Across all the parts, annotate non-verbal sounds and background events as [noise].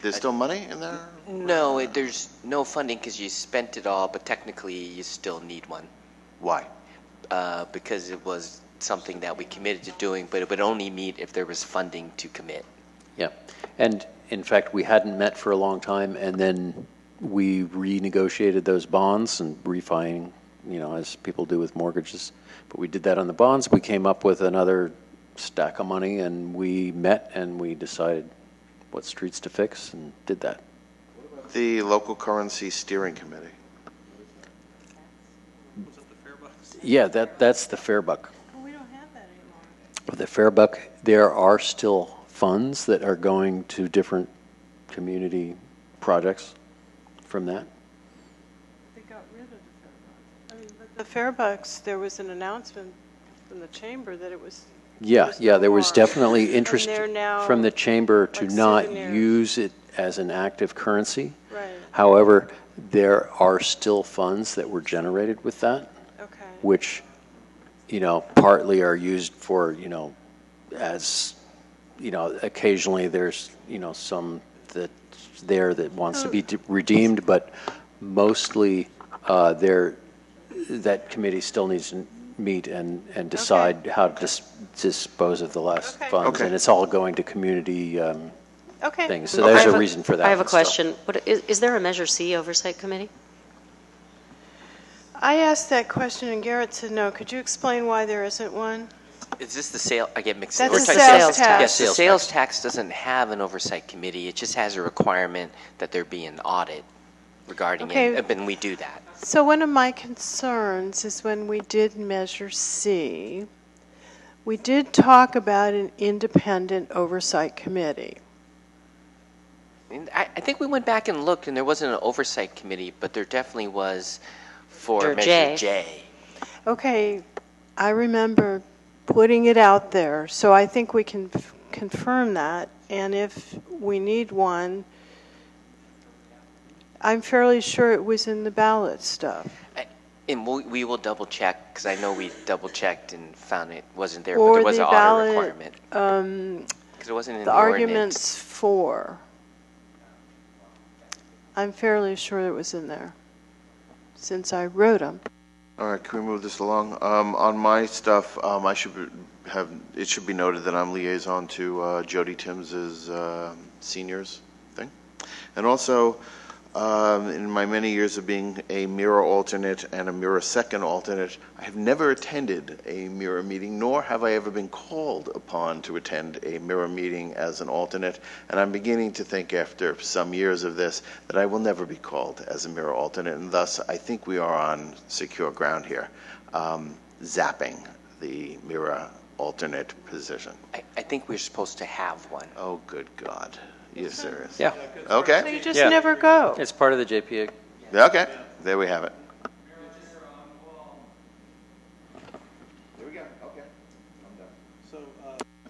There's still money in there? No, it, there's no funding because you spent it all, but technically you still need one Why? uh, because it was something that we committed to doing, but it would only meet if there was funding to commit. Yeah, and in fact, we hadn't met for a long time, and then we renegotiated those bonds and refining, you know, as people do with mortgages. But we did that on the bonds, we came up with another stack of money, and we met and we decided what streets to fix and did that. The local currency steering committee. Yeah, that, that's the Fairbuck. Well, we don't have that anymore. The Fairbuck, there are still funds that are going to different community projects from that. They got rid of the Fairbox. I mean, but the Fairbox, there was an announcement from the chamber that it was. Yeah, yeah, no there was more. definitely interest they're now from the chamber to like not souvenirs. use it as an active currency. Right. However, there are still funds that were generated with that, Okay. which, you know, partly are used for, you know, as, you know, occasionally there's, you know, some that's there that wants to be de- redeemed, but mostly, uh, there, that committee still needs to meet and, and decide how to dis- dispose of the last Okay. funds. Okay. And it's all going to community, um, Okay. things. So Okay. I there's have a a- reason for that. I have a and stuff. question. What, is, is there a Measure C Oversight Committee? I asked that question and Garrett said no. Could you explain why there isn't one? Is this the sale, I get mixed up. That's a Oversight sales sales tax. tax. Yes, the Sales sales tax doesn't have an oversight committee, it just has a requirement that there be an audit regarding Okay. it, and we do that. So one of my concerns is when we did Measure C, we did talk about an independent oversight committee. And I, I think we went back and looked, and there wasn't an oversight committee, but there definitely was for Under Measure J. J. Okay, I remember putting it out there, so I think we can f- confirm that. And if we need one, I'm fairly sure it was in the ballot stuff. And we'll, we will double check, because I know we double checked and found it wasn't there, but Or there was the an audit ballot, requirement. Um, Because it wasn't in The the ordinance. arguments for, I'm fairly sure it was in there, since I wrote them. All right, can we move this along? Um, on my stuff, um, I should be- have, it should be noted that I'm liaison to, uh, Jody Timms's, uh, seniors thing. And also, um, in my many years of being a mirror alternate and a mirror second alternate, I have never attended a mirror meeting, nor have I ever been called upon to attend a mirror meeting as an alternate. And I'm beginning to think after some years of this that I will never be called as a mirror alternate, and thus I think we are on secure ground here, um, zapping the mirror alternate position. I, I think we're supposed to have one. Oh, good God. You're serious? Yeah, So Okay, you just Yeah. never go. it's part of the JPA okay, there we have it.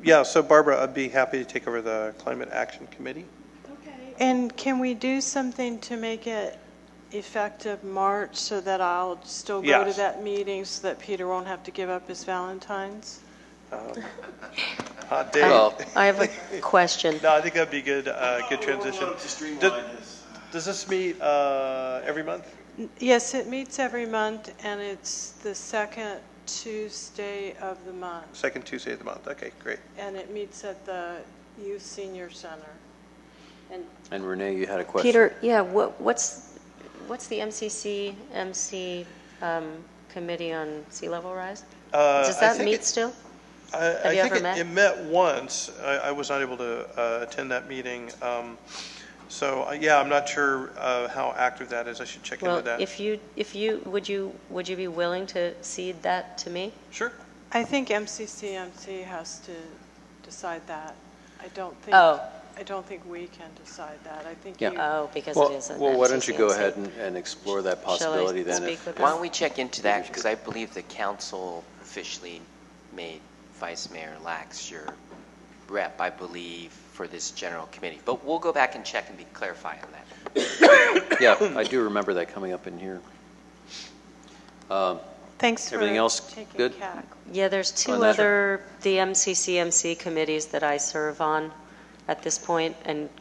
Yeah, so Barbara, I'd be happy to take over the Climate Action Committee. And can we do something to make it effective March so that I'll still go to Yes. that meeting so that Peter won't have to give up his Valentines? Hot day. Well, [laughs] I have a question. Uh, No, I think that'd be a good, uh, good transition. Does- Does this meet, uh, every month? Yes, it meets every month and it's the second Tuesday of the month. Second Tuesday of the month, okay, great. And it meets at the Youth Senior Center. And Renee, you had a question. Peter, yeah, what, what's, what's the MCC, MC um, Committee on Sea Level Rise? Uh, Does that meet still? Have you ever met? It met once, I, I was not able to, uh, attend that meeting. Um, so, uh, yeah, I'm not sure, uh, how active that is, I should check into Well, that. if you, if you, would you, would you be willing to cede that to me? Sure. I think MCCMC has to decide that. I don't think, Oh. I don't think we can decide that. I think Yeah. you. Oh, because Well, it is an well, why don't you go MCC. ahead and, and explore that Shall I possibility then? speak if- with why don't we check into that, because I believe the council officially made Vice Mayor Lax your rep, I believe, for this general committee. But we'll go back and check and be clarify on that. Yeah, I do remember that coming up in here. Thanks for Everything else taking good? CAC. Yeah, there's On two that. other, the MCCMC committees that I serve on at this point, and